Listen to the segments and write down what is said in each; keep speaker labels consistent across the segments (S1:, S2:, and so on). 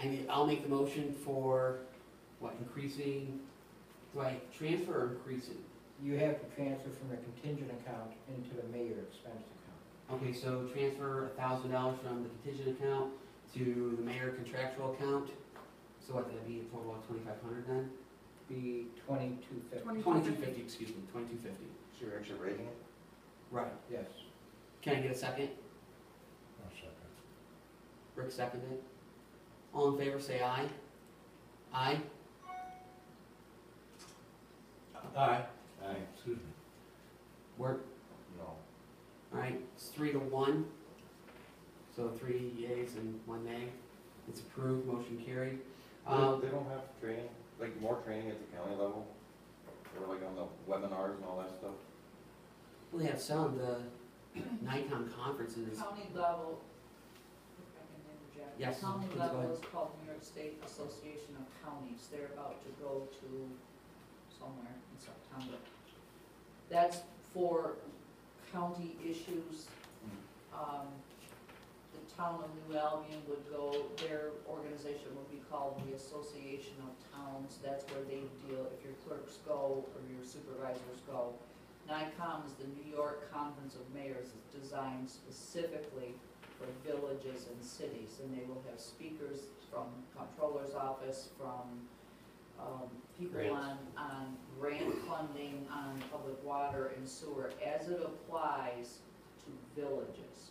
S1: I mean, I'll make the motion for, what, increasing, do I transfer or increasing?
S2: You have to transfer from the contingent account into the mayor expense account.
S1: Okay, so transfer a thousand dollars from the contingent account to the mayor contractual account. So what, that'd be a total of twenty-five hundred then?
S2: Be twenty-two fifty,
S1: Twenty-two fifty, excuse me, twenty-two fifty.
S3: So you're actually raising it?
S1: Right.
S2: yes.
S1: Can I get a second?
S4: I'll second.
S1: Rick seconded. All in favor, say aye. Aye?
S4: Aye.
S3: Aye.
S4: Excuse me.
S1: Work,
S3: No.
S1: alright, it's three to one. So three yays and one nay. It's approved, motion carried. Um,
S3: They don't have training, like more training at the county level? Or like on the webinars and all that stuff?
S1: well, they have some, the Nikon conferences,
S5: County level, if I can interject.
S1: Yes,
S5: County
S1: please go
S5: level
S1: ahead.
S5: is called New York State Association of Counties, they're about to go to somewhere in September. That's for county issues.
S1: Mm.
S5: Um, the town of New Albion would go, their organization would be called the Association of Towns, that's where they deal, if your clerks go or your supervisors go. NICOM is the New York Conference of Mayors, it's designed specifically for villages and cities, and they will have speakers from comptroller's office, from, um, people
S3: Grants.
S5: on, on grant funding, on public water and sewer, as it applies to villages.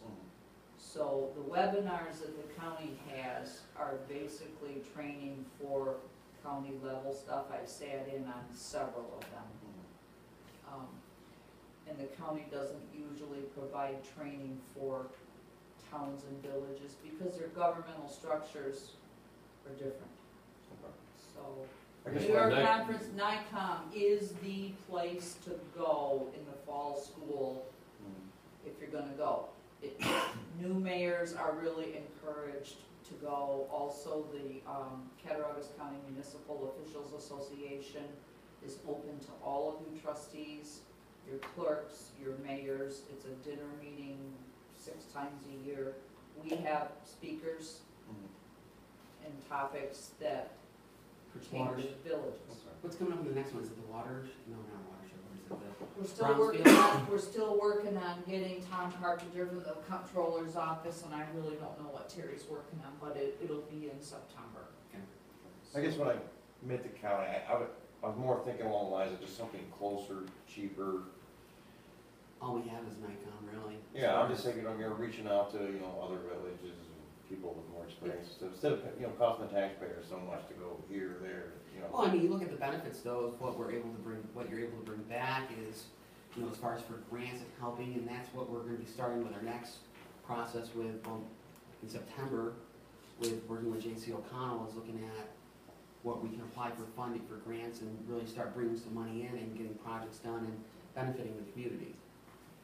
S5: So the webinars that the county has are basically training for county level stuff, I've sat in on several of them. Um, And the county doesn't usually provide training for towns and villages because their governmental structures are different. So,
S3: I guess
S5: New York
S3: my-
S5: Conference, NICOM is the place to go in the fall school
S3: Mm.
S5: if you're gonna go. It- New mayors are really encouraged to go. Also, the um, Cattaraugus County Municipal Officials Association is open to all of you trustees, your clerks, your mayors. It's a dinner meeting six times a year. We have speakers
S3: Mm.
S5: and topics that pertain
S1: Waters.
S5: to villages.
S3: Okay.
S1: What's coming up in the next one? Is it the waters? No, not watershed. What is it? The
S5: We're still working on, we're still working on getting Tom Carpenter from the comptroller's office, and I really don't know what Terry's working on, but it, it'll be in September.
S3: I guess when I meant the county, I, I would, I was more thinking along the lines of just something closer, cheaper.
S1: all we have is Nikon, really.
S3: Yeah, I'm just thinking, I'm, you're reaching out to, you know, other villages and people with more experience. So instead of, you know, costing the taxpayers so much to go here, there, you know.
S1: Well, I mean, you look at the benefits though, of what we're able to bring, what you're able to bring back is, you know, as far as for grants and helping, and that's what we're gonna be starting with our next process with, um, in September, with working with J.C. O'Connell, is looking at what we can apply for funding for grants and really start bringing some money in and getting projects done and benefiting the community,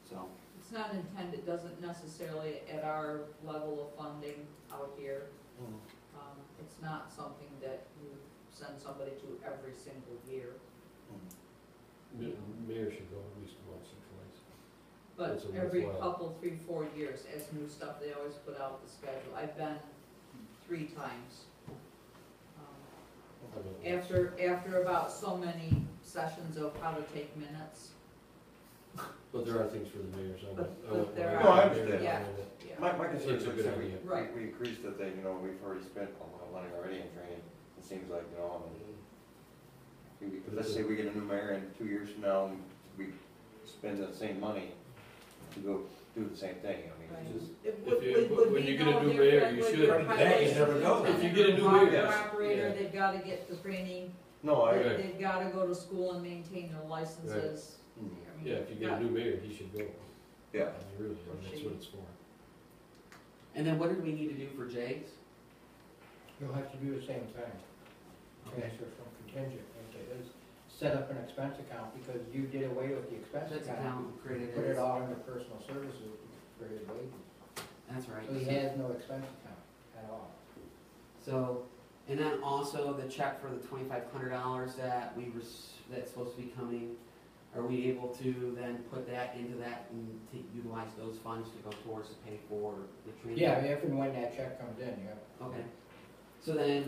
S1: so.
S5: It's not intended, doesn't necessarily at our level of funding out here,
S3: Mm.
S5: um, it's not something that you send somebody to every single year,
S3: Mm.
S4: Ma- Mayor should go at least once or twice.
S5: but
S4: It's a
S5: every
S4: worthwhile-
S5: couple, three, four years, as new stuff, they always put out the schedule. I've been three times. Um,
S4: I don't know.
S5: After, after about so many sessions of how to take minutes,
S4: But there are things for the mayors, I went,
S5: But-
S4: I
S5: but
S4: went.
S5: there
S4: when
S5: are-
S4: was
S3: No, I
S4: a mayor,
S3: understand.
S5: Yeah.
S4: went.
S5: yeah.
S3: My, my concern is
S4: It's a
S3: like,
S4: good
S3: so we,
S4: idea.
S5: Right.
S3: we we increased the thing, you know, we've already spent a lot of money already in training, it seems like, you know, and we- let's say we get a new mayor and two years from now, and we spend that same money to go do the same thing, I mean,
S5: Right.
S3: it's just.
S5: It
S4: If
S5: would-
S4: you-
S5: would- would
S4: when
S5: be
S4: you get a
S5: no
S4: new
S5: different
S4: mayor, you
S5: with
S4: should.
S5: your
S3: That is
S5: highway
S3: never done.
S5: superintendent
S4: If you get a new
S5: or
S4: mayor,
S5: Operator,
S4: yeah.
S5: they've gotta get the training,
S3: No, I,
S4: Right.
S5: they've gotta go to school and maintain their licenses.
S3: Mm.
S5: I mean,
S4: Yeah, if you get a new mayor, he should go. I
S3: yeah,
S4: mean, Really, I mean, that's what it's for.
S1: And then what did we need to do for Jay's?
S2: You'll have to do the same thing, transfer from contingent into his, set up an expense account, because you did away with the expense
S1: That's
S2: account.
S1: account created
S2: Put it
S1: as,
S2: all into personal services for his wages,
S1: that's right.
S2: so he has no expense account at all.
S1: So, and then also the check for the twenty-five hundred dollars that we were, that's supposed to be coming, are we able to then put that into that and to utilize those funds to go towards to pay for the training?
S2: Yeah, if and when that check comes in, yeah.
S1: Okay, So then,